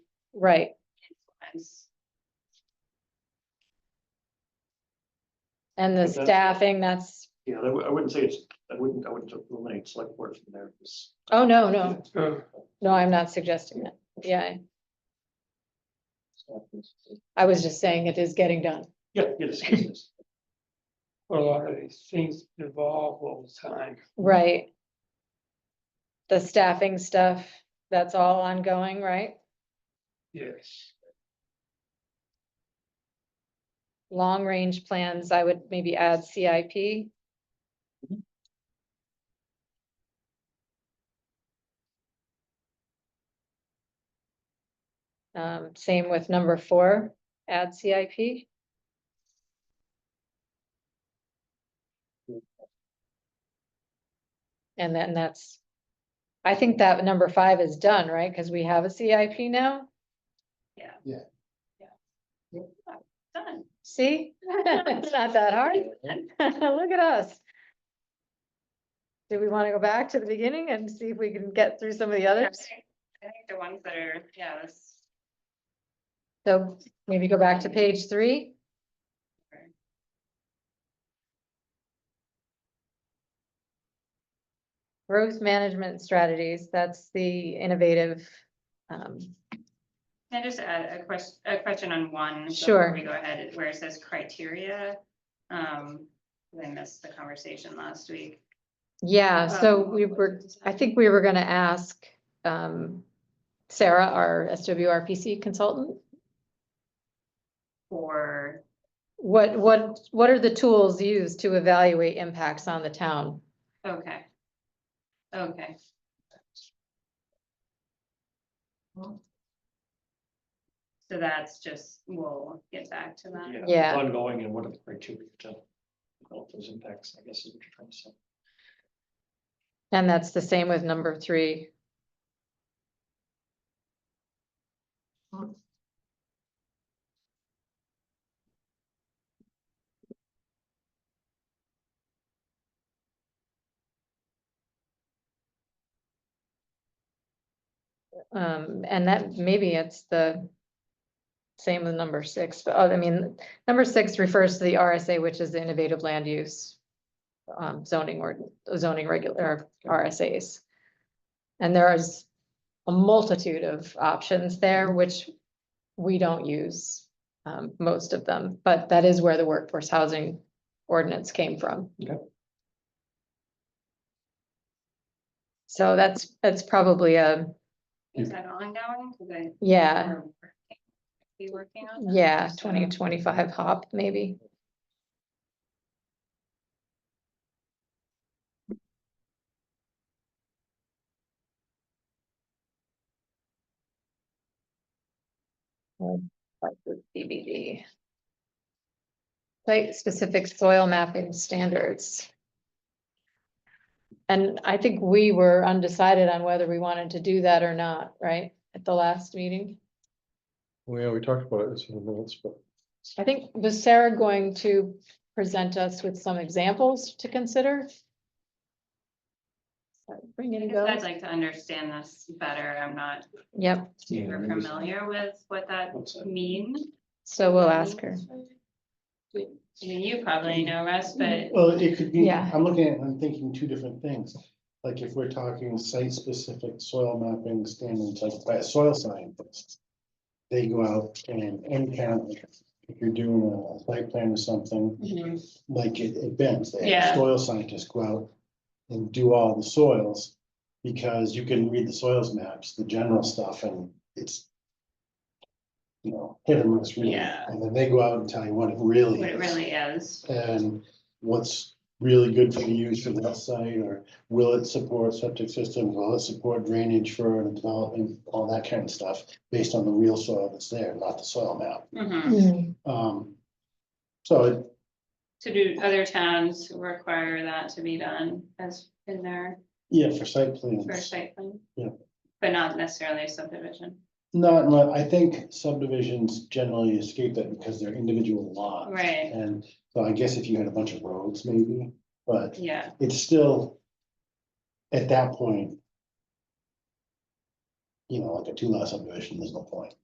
Right. influence. And the But that's- staffing, that's, Yeah, I wou- I wouldn't say it's, I wouldn't, I wouldn't eliminate select board from there. because- oh, no, no, no, I'm not suggesting that. Yeah, Oh. I was just saying it is getting done. Yeah, it is, it is. a lot of these things evolve all the time. Right. The staffing stuff, that's all ongoing, right? Yes, Long range plans, I would maybe add CIP. Um, same with number four, add CIP. And then that's, I think that number five is done, right? Because we have a CIP now, Yeah. Yeah. Yeah. Done. see? It's not that hard. Look at us. Do we want to go back to the beginning and see if we can get through some of the I others? think I think the ones that are, yeah, this, So maybe go back to page three. Okay. Growth management strategies, that's the innovative. um, can I just add a question, a question on one? before Sure. We go ahead, where it says criteria, um, I missed the conversation last week. Yeah, so Um, we were, I think we were gonna ask um, Sarah, our SWRPC consultant, For, what, what, what are the tools used to evaluate impacts on the town? okay. Okay, so that's just, we'll get back to that. Yeah, Yeah. it's Ongoing and what are the criteria to develop those impacts, I guess is what you're trying to say. And that's the same with number three. Um, and that, maybe it's the same with number six, but uh, I mean, number six refers to the RSA, which is the innovative land use um, zoning or zoning regular RSAs. And there is a multitude of options there, which we don't use, um, most of them, but that is where the workforce housing ordinance came from. Okay. So that's, that's probably a, Is that ongoing? 'Cause I- yeah, we're working- Be working on that. yeah, so- twenty twenty-five hop, maybe. Um, like the CBD. Site-specific soil mapping standards. And I think we were undecided on whether we wanted to do that or not, right, at the last meeting? Well, yeah, we talked about this in the minutes, but I think, was Sarah going to present us with some examples to consider? So, Bring in I guess I'd those, like to understand this better. I'm not yep, Yeah, super maybe it's- familiar with what that What's that? means. so we'll ask her. I mean, you probably know, Russ, but Well, it could be, Yeah. I'm looking at, I'm thinking two different things. Like if we're talking site-specific soil mapping standards, like by a soil scientist. They go out and encounter, if you're doing a site plan or something, Mm-hmm. Mhm. like it, it bends, they Yeah. have soil scientists go out and do all the soils. Because you can read the soils maps, the general stuff, and it's. You know, hit or miss really, Yeah. and then they go out and tell you what it really what it is really is. and what's really good for the use of that site, or will it support septic systems, will it support drainage for the development, all that kind of stuff, based on the real soil that's there, not the soil map. Mhm. Mm, Um, so it, So do other towns require that to be done as in their yeah, for site first plans, site plan? Yeah. But not necessarily subdivision, not, mu- I think subdivisions generally escape that because they're individual lots. Right. And so I guess if you had a bunch of roads maybe, but yeah. it's still, at that point, you know, like a two lot subdivision, there's no point.